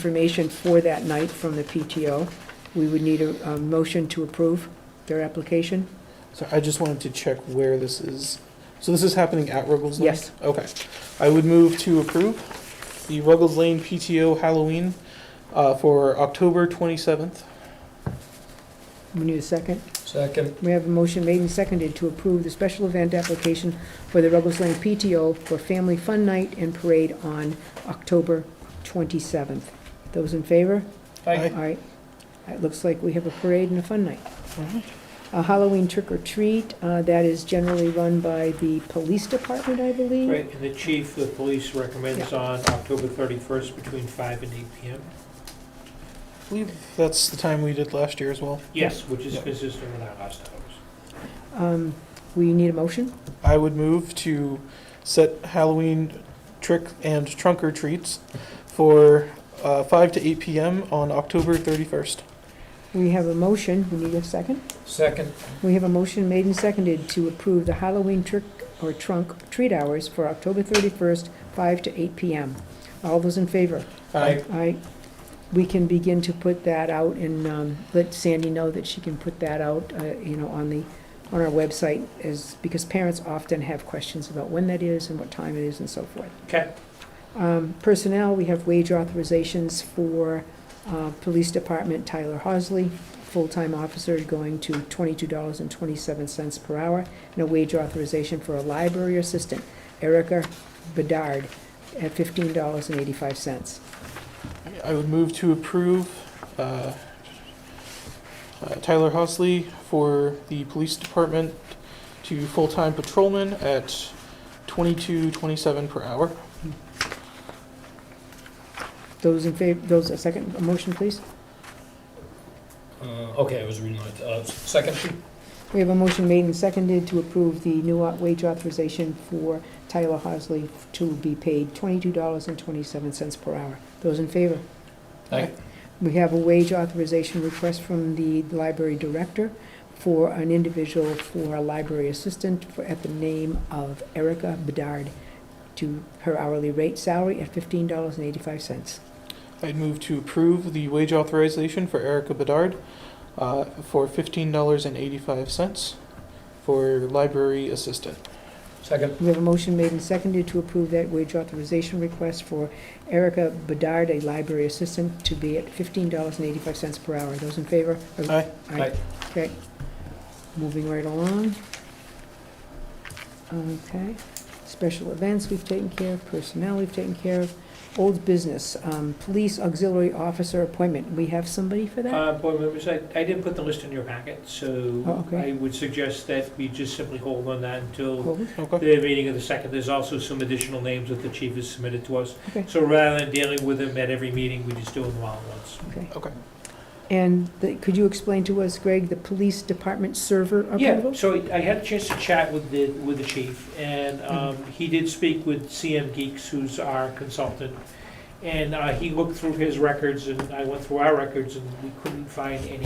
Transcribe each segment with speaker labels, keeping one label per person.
Speaker 1: information for that night from the PTO. We would need a, a motion to approve their application.
Speaker 2: So I just wanted to check where this is. So this is happening at Ruggles Lane?
Speaker 1: Yes.
Speaker 2: Okay. I would move to approve the Ruggles Lane PTO Halloween uh, for October 27th.
Speaker 1: We need a second.
Speaker 3: Second.
Speaker 1: We have a motion made and seconded to approve the special event application for the Ruggles Lane PTO for Family Fun Night and Parade on October 27th. Those in favor?
Speaker 2: Aye.
Speaker 1: All right. It looks like we have a parade and a fun night.
Speaker 2: All right.
Speaker 1: A Halloween trick or treat, uh, that is generally run by the police department, I believe.
Speaker 3: Right, and the chief, the police recommends on October 31st between 5 and 8 PM.
Speaker 2: I believe that's the time we did last year as well.
Speaker 3: Yes, which is
Speaker 2: Yeah.
Speaker 3: consistent with our last hours.
Speaker 1: Um, We need a motion.
Speaker 2: I would move to set Halloween trick and trunk or treats for uh, 5 to 8 p.m. on October 31st.
Speaker 1: We have a motion, we need a second.
Speaker 3: Second.
Speaker 1: We have a motion made and seconded to approve the Halloween trick or trunk treat hours for October 31st, 5 to 8 p.m. All those in favor?
Speaker 3: Aye.
Speaker 1: I, we can begin to put that out and um, let Sandy know that she can put that out, uh, you know, on the, on our website is, because parents often have questions about when that is and what time it is and so forth.
Speaker 3: Okay,
Speaker 1: Um, Personnel, we have wage authorizations for uh, Police Department Tyler Hosley, full-time officer, going to $22.27 per hour, and a wage authorization for a library assistant, Erica Bedard, at $15.85.
Speaker 2: I would move to approve uh, uh, Tyler Hosley for the police department to full-time patrolman at twenty-two twenty-seven per hour.
Speaker 1: Those in favor, those, a second, a motion, please?
Speaker 4: Uh, Okay, I was reading it. Uh, Second,
Speaker 1: We have a motion made and seconded to approve the new au- wage authorization for Tyler Hosley to be paid $22.27 per hour. Those in favor?
Speaker 4: Aye.
Speaker 1: We have a wage authorization request from the library director for an individual for a library assistant for- at the name of Erica Bedard to her hourly rate salary at $15.85.
Speaker 2: I'd move to approve the wage authorization for Erica Bedard uh, for fifteen dollars and eighty-five cents for library assistant.
Speaker 4: second,
Speaker 1: We have a motion made and seconded to approve that wage authorization request for Erica Bedard, a library assistant, to be at fifteen dollars and eighty-five cents per hour. Those in favor?
Speaker 2: Aye.
Speaker 4: Aye.
Speaker 1: Okay. Moving right along. Okay. Special events we've taken care of, personnel we've taken care of. Old business, um, police auxiliary officer appointment. We have somebody for that?
Speaker 3: Uh, board members, I I didn't put the list in your packet,
Speaker 1: Oh,
Speaker 3: so
Speaker 1: okay.
Speaker 3: I would suggest that we just simply hold on that until
Speaker 1: Hold.
Speaker 2: Okay.
Speaker 3: the meeting of the second. There's also some additional names that the chief has submitted to us.
Speaker 1: Okay.
Speaker 3: So rather than dealing with them at every meeting, we just do them all at once.
Speaker 1: Okay.
Speaker 2: Okay.
Speaker 1: And the- could you explain to us, Greg, the police department server
Speaker 3: Yeah,
Speaker 1: approval?
Speaker 3: so I had a chance to chat with the, with the chief, and um, he did speak with CM Geeks, who's our consultant. And uh, he looked through his records, and I went through our records, and we couldn't find any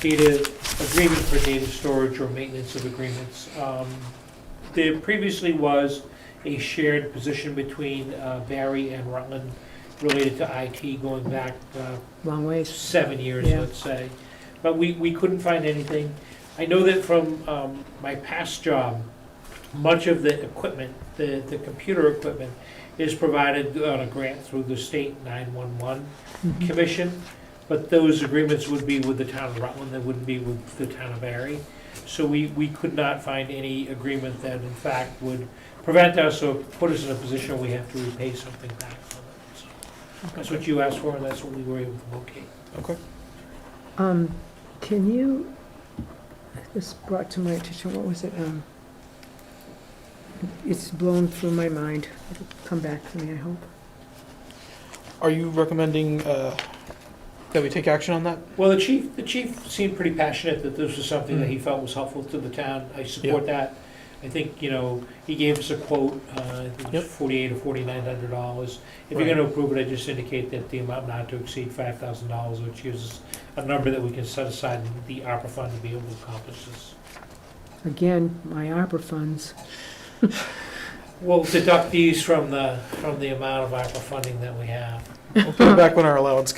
Speaker 3: data agreement for data storage or maintenance of agreements. Um, There previously was a shared position between uh, Barry and Rutland related to IT going back uh,
Speaker 1: Long ways.
Speaker 3: seven years,
Speaker 1: Yeah.
Speaker 3: let's say. But we, we couldn't find anything. I know that from um, my past job, much of the equipment, the, the computer equipment, is provided on a grant through the state 911
Speaker 1: Mhm.
Speaker 3: commission, but those agreements would be with the town of Rutland, they wouldn't be with the town of Barry. So we, we could not find any agreement that in fact would prevent us or put us in a position where we have to repay something back from it. So That's what you asked for, and that's what we were able to locate.
Speaker 2: Okay.
Speaker 1: Um, can you, this brought to my attention, what was it, um, it's blown through my mind, it'll come back to me, I hope.
Speaker 2: Are you recommending uh, that we take action on that?
Speaker 3: Well, the chief, the chief seemed pretty passionate that this was something
Speaker 2: Mm.
Speaker 3: that he felt was helpful to the town. I support that. I think, you know, he gave us a quote, uh, I think it
Speaker 2: Yep.
Speaker 3: was forty-eight or forty-nine hundred dollars. If you're
Speaker 2: Right.
Speaker 3: gonna approve it, I just indicate that the amount not to exceed five thousand dollars, which is a number that we can set aside in the opera fund to be able to accomplish this.
Speaker 1: Again, my opera funds.
Speaker 3: We'll deduct these from the, from the amount of ARPA funding that we have.
Speaker 2: We'll put it back when our allowance